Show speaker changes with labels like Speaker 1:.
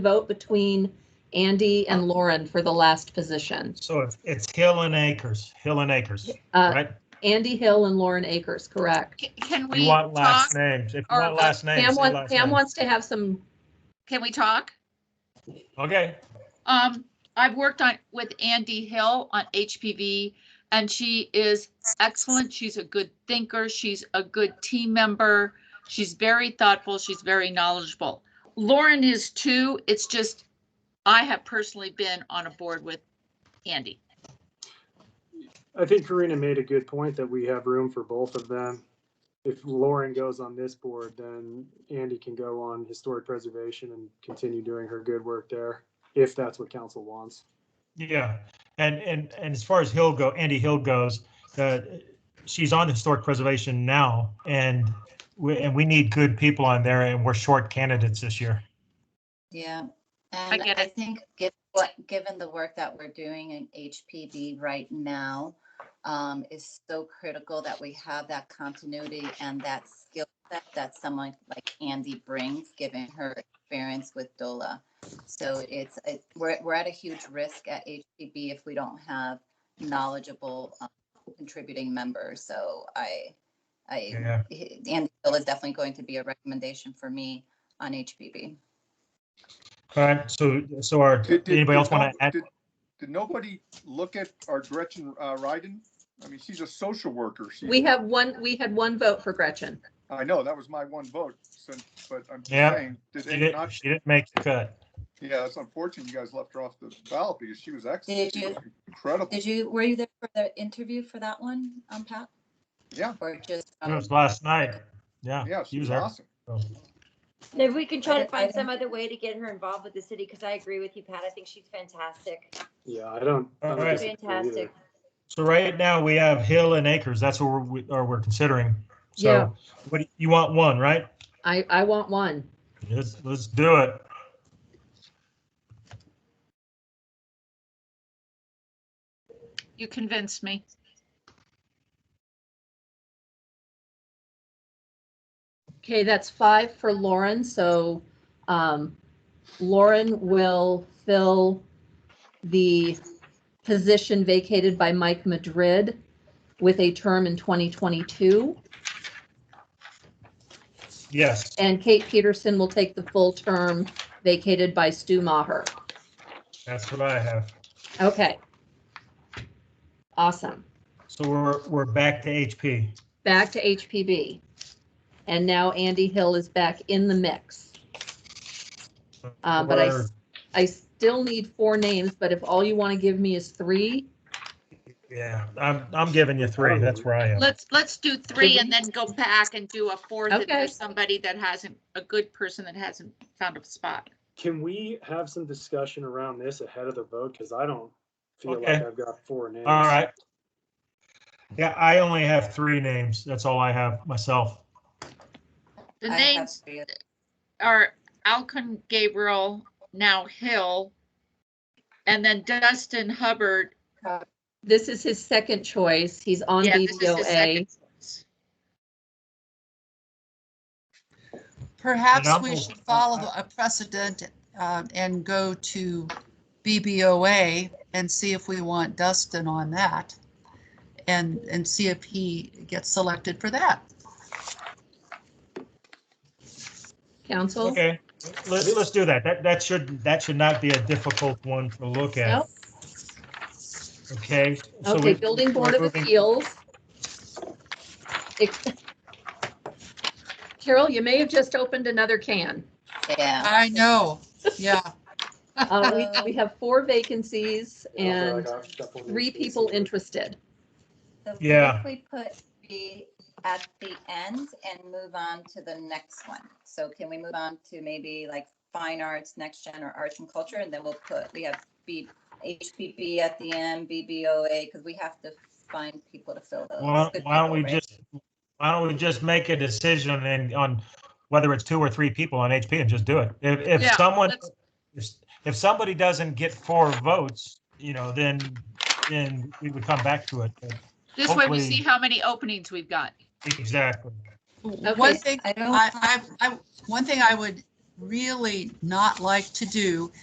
Speaker 1: vote between Andy and Lauren for the last position.
Speaker 2: So it's- it's Hill and Acres, Hill and Acres,
Speaker 1: Uh,
Speaker 2: right?
Speaker 1: Andy Hill and Lauren Akers, correct?
Speaker 3: Ca- Can
Speaker 2: You
Speaker 3: we
Speaker 2: want
Speaker 3: talk?
Speaker 2: last names. If you
Speaker 3: or
Speaker 2: want
Speaker 3: what-
Speaker 2: last names,
Speaker 1: uh, Pam
Speaker 2: say
Speaker 1: wants,
Speaker 2: last
Speaker 1: Pam
Speaker 2: names.
Speaker 1: wants to have some,
Speaker 3: Can we talk?
Speaker 2: Okay,
Speaker 3: Um, I've worked on, with Andy Hill on HPV and she is excellent. She's a good thinker. She's a good team member. She's very thoughtful. She's very knowledgeable. Lauren is too. It's just, I have personally been on a board with Andy.
Speaker 4: I think Karina made a good point that we have room for both of them. If Lauren goes on this board, then Andy can go on historic preservation and continue doing her good work there, if that's what council wants.
Speaker 2: yeah. And, and, and as far as Hill go, Andy Hill goes, uh, she's on the historic preservation now and we, and we need good people on there and we're short candidates this year.
Speaker 5: Yeah, and
Speaker 3: get
Speaker 5: I
Speaker 3: it.
Speaker 5: think given what, given the work that we're doing in HPD right now, um, is so critical that we have that continuity and that skill set that someone like Andy brings, given her experience with DOLA. So it's, it, we're, we're at a huge risk at HPB if we don't have knowledgeable um, contributing members. So I, I,
Speaker 2: Yeah,
Speaker 5: Andy Bill is definitely going to be a recommendation for me on HPB.
Speaker 2: all right, so, so our,
Speaker 6: Did- did-
Speaker 2: anybody
Speaker 6: did
Speaker 2: else want
Speaker 6: nobody-
Speaker 2: to add?
Speaker 6: did- Did nobody look at our Gretchen uh, Ryden? I mean, she's a social worker. She-
Speaker 1: we have one, we had one vote for Gretchen.
Speaker 6: I know, that was my one vote, since- but I'm just
Speaker 2: Yeah.
Speaker 6: saying, did
Speaker 2: She
Speaker 6: they
Speaker 2: didn't,
Speaker 6: not?
Speaker 2: she didn't make the cut.
Speaker 6: Yeah, it's unfortunate you guys left her off the ballot because she was excellent.
Speaker 5: Did
Speaker 6: She
Speaker 5: you-
Speaker 6: was Incredible.
Speaker 5: Did you, were you there for the interview for that one, um, Pat?
Speaker 6: Yeah.
Speaker 5: Or just? um,
Speaker 2: It was last night. Yeah.
Speaker 6: Yeah,
Speaker 2: she
Speaker 6: she was
Speaker 2: there.
Speaker 6: awesome.
Speaker 2: So,
Speaker 7: Maybe we can try
Speaker 5: I-
Speaker 7: to
Speaker 5: I
Speaker 7: find
Speaker 5: don't-
Speaker 7: some other way to get her involved with the city, because I agree with you, Pat. I think she's fantastic.
Speaker 4: Yeah, I don't. I don't
Speaker 2: All right.
Speaker 4: disagree either.
Speaker 7: Fantastic.
Speaker 2: So right now we have Hill and Acres. That's what we're, we- or we're considering.
Speaker 1: Yeah.
Speaker 2: So what, do- you want one, right?
Speaker 1: I, I want one.
Speaker 2: Let's, let's do it.
Speaker 3: You convinced me.
Speaker 1: Okay, that's five for Lauren, so um, Lauren will fill the position vacated by Mike Madrid with a term in 2022.
Speaker 2: Yes.
Speaker 1: And Kate Peterson will take the full term vacated by Stu Maher.
Speaker 2: That's what I have.
Speaker 1: Okay. Awesome.
Speaker 2: So we're, we're back to HP.
Speaker 1: Back to HPB. And now Andy Hill is back in the mix. Uh, but I s-
Speaker 2: We're-
Speaker 1: I still need four names, but if all you want to give me is three,
Speaker 2: Yeah, I'm, I'm giving you three. That's where I am.
Speaker 3: Let's, let's do three and then go back and do a fourth if
Speaker 1: Okay.
Speaker 3: there's somebody that hasn't, a good person that hasn't found a spot.
Speaker 4: Can we have some discussion around this ahead of the vote? Because I don't feel like
Speaker 2: Okay.
Speaker 4: I've got four names.
Speaker 2: All right. Yeah, I only have three names. That's all I have myself.
Speaker 3: The
Speaker 5: I have
Speaker 3: names
Speaker 5: three.
Speaker 3: are Alcon Gabriel, now Hill, and then Dustin Hubbard.
Speaker 1: this is his second choice. He's on
Speaker 3: Yeah, this is his
Speaker 1: DVOA.
Speaker 3: second choice.
Speaker 8: Perhaps
Speaker 2: Phenomenal.
Speaker 8: we should follow a precedent uh, and go to BBOA and see if we want Dustin on that. And, and see if he gets selected for that.
Speaker 1: Council?
Speaker 2: Okay, let's, let's do that. That, that should, that should not be a difficult one to look at.
Speaker 1: Nope.
Speaker 2: Okay. so
Speaker 1: Okay,
Speaker 2: we-
Speaker 1: Building Board
Speaker 2: we're
Speaker 1: of
Speaker 2: moving-
Speaker 1: Appeals. Ex- Carol, you may have just opened another can.
Speaker 5: Yeah,
Speaker 8: I know, yeah.
Speaker 1: Uh, we, we have four vacancies
Speaker 3: Oh,
Speaker 4: I don't feel
Speaker 1: and
Speaker 4: like I've got four names.
Speaker 1: three people interested.
Speaker 5: so what
Speaker 2: Yeah.
Speaker 5: if we put three at the end and move on to the next one. So can we move on to maybe like fine arts, next gen or arts and culture? And then we'll put, we have B, HPB at the end, BBOA, because we have to find people to fill those.
Speaker 2: Why
Speaker 5: good
Speaker 2: why don't
Speaker 5: people,
Speaker 2: we
Speaker 5: right?
Speaker 2: just, why don't we just make a decision and on whether it's two or three people on HP and just do it? If, if
Speaker 3: Yeah,
Speaker 2: someone,
Speaker 3: let's-
Speaker 2: if, if somebody doesn't get four votes, you know, then, then we would come back to it.
Speaker 3: This way we
Speaker 2: Hopefully-
Speaker 3: see how many openings we've got.
Speaker 2: Exactly.
Speaker 8: One
Speaker 1: Okay,
Speaker 8: thing,
Speaker 5: I don't
Speaker 8: I, I, I, one thing I would really not like to do